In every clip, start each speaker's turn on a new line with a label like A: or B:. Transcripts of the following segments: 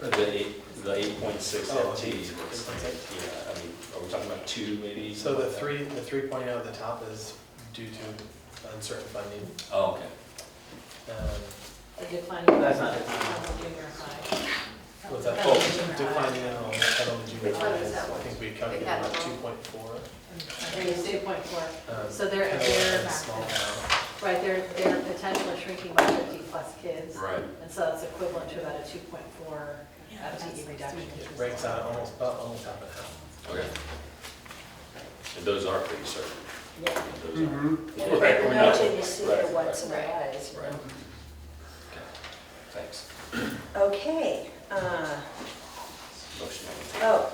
A: The eight, the eight point six
B: Oh,
A: FT,
B: eight
A: is-
B: point
A: yeah, I mean, are we talking about two maybe?
B: So the
A: something like
B: three, the three point oh at the top is due to uncertain funding.
A: that? Oh, okay.
B: um,
C: The declining.
D: That's not declining.
C: Of junior high.
B: What's that? Oh,
C: Of junior high.
B: Declining in all, I don't think you
C: Oh, is that
B: I
C: one?
B: think we calculated
C: had
B: about
C: one.
B: two point four.
C: There you see, point four. So they're,
B: Kind of
C: they're,
B: a small
C: back-
B: amount.
C: right, they're, they're potentially shrinking by fifty plus kids.
A: Right.
C: And so that's equivalent to about a two point four FTE reduction.
B: It breaks out almost, about almost half and half.
A: Okay. And those are pretty certain.
E: Yeah.
A: Those
B: Mm-hmm.
A: are. Right, we know.
E: Imagine you see the
A: Right,
E: whites of
C: right,
E: their eyes. you
A: Right.
E: know.
A: Okay. Thanks.
E: Okay, uh,
A: Motion on the table.
E: oh,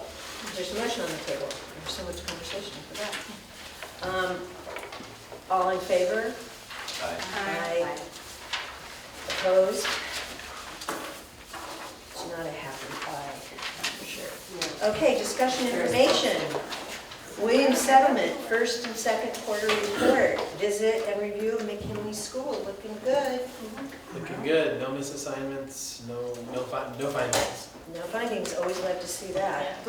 E: there's a motion on the table. There's so much conversation for that. Um, All in favor?
A: Aye.
E: Aye. Opposed? It's not a happy aye, for sure. Okay, discussion information. Williams Settlement, first and second quarter report. Visit and review of McKinley School, looking good.
B: Looking good, no misassignments, no, no fin, no findings.
E: No findings, always love to see that.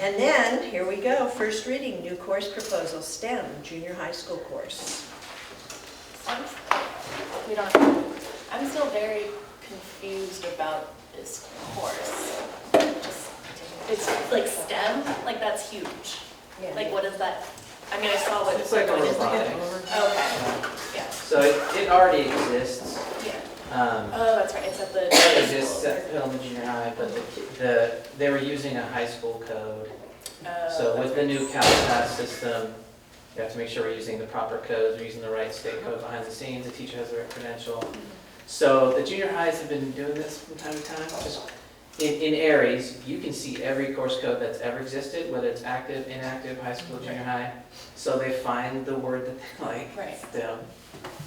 E: And then, here we go, first reading, new course proposal, STEM, junior high school course.
F: I'm, we don't, I'm still very confused about this course. Just- It's like STEM, like that's huge.
E: Yeah.
F: Like what is that? I mean, I saw what.
D: It's like a
F: what is it?
D: robotics.
F: Okay, yeah,
D: So it, it already exists.
F: yeah.
D: Um,
F: Oh, that's right, it's at the.
D: It exists at Pelham Junior High, but the, ki- the, they were using a high school code.
F: Oh,
D: So with the new CalPAS system, you have to make sure we're using the proper codes, we're using the right state code behind the scenes, the teacher has the right credential. So the junior highs have been doing this from time to time, just in, in Aries, you can see every course code that's ever existed, whether it's active, inactive, high school, junior high. So they find the word that they like,
F: Right.
D: they'll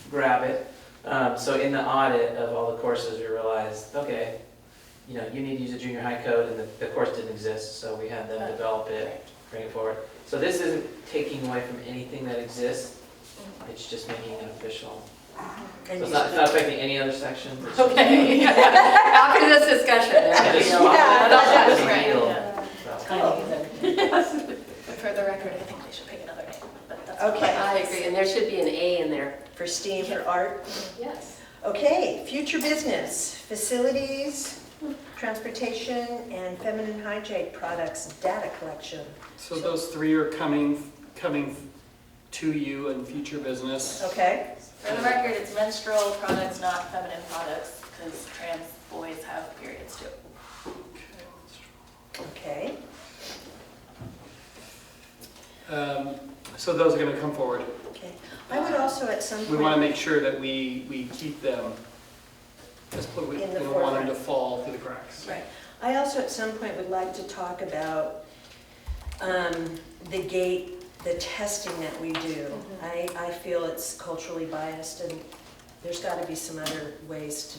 D: grab it. Um, so in the audit of all the courses, we realized, okay, you know, you need to use a junior high code, and the, the course didn't exist, so we had them develop it,
F: right.
D: bring it forward. So this isn't taking away from anything that exists, it's just making it official. So
E: And
D: it's
E: you-
D: not, it's not affecting any other section. it's just-
F: Okay.
C: After this discussion,
D: Yeah, this is all-
E: Yeah,
D: that's a big
F: right,
D: deal.
F: yeah.
D: So-
F: For the record, I think they should pick another name, but that's.
E: Okay.
G: I agree, and there should be an A in there.
E: For STEAM, for art.
F: Yes.
E: Okay, future business, facilities, transportation, and feminine hygiene products, data collection.
H: So those three are coming, coming to you in future business.
E: Okay,
F: For the record, it's menstrual products, not feminine products, because trans boys have periods too.
E: okay.
H: Um, So those are going to come forward.
E: Okay. I would also at some
H: We want
E: point,
H: to make sure that we, we keep them. That's what we, we
E: In the
H: don't want them to
E: forefront.
H: fall through the cracks.
F: Right.
E: I also at some point would like to talk about um, the gate, the testing that we do. I,
F: Mm-hmm.
E: I feel it's culturally biased, and there's got to be some other ways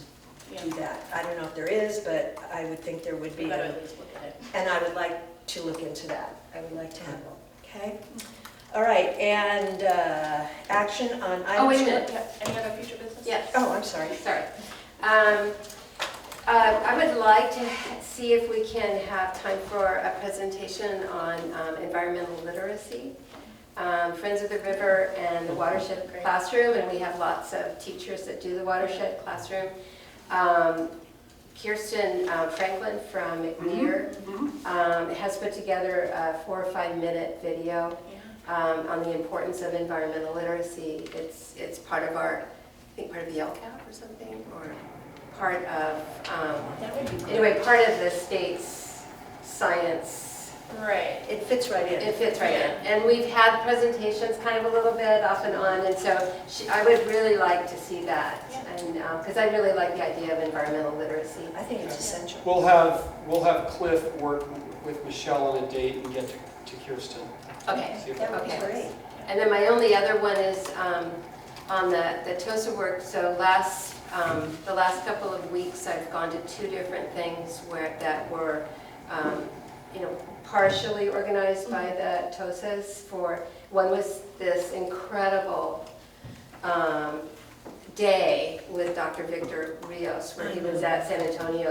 E: to do
F: Yeah.
E: that. I don't know if there is, but I would think there would
F: We
E: be.
F: gotta at least look at it.
E: And I would like to look into that. I would like to have, one. okay? All right, and uh, action on item...
G: Oh, wait a
E: two-
G: minute.
F: Yeah, Any other future business?
G: Yes,
E: Oh, I'm sorry.
G: sorry. Um, uh, I would like to ha- see if we can have time for a presentation on um, environmental literacy. Um, Friends of the River and the Watershed Classroom, and we have lots of teachers that do the Watershed Classroom. Um, Kirsten uh, Franklin from McNear um, has put together a four or five-minute video um, on the importance of environmental literacy. It's, it's part of our, I think part of the LCAP or something, or part of, um,
F: That would be great.
G: anyway, part of the state's science.
F: Right.
E: It fits right
G: It
E: in.
G: fits right in. And we've had presentations kind of a little bit off and on, and so she- I would really like to see that. And, because I really like the idea of environmental literacy.
E: I think it's essential.
H: We'll have, we'll have Cliff work with Michelle on a date and get to to Kirsten.
G: Okay.
H: See if
E: That would be
G: Okay.
E: great.
G: And then my only other one is um, on the, the TOSA work, so last, um, the last couple of weeks, I've gone to two different things where, that were, um, you know, partially organized by the TOSAs for, one was this incredible um, day with Dr. Victor Rios, where he was at San Antonio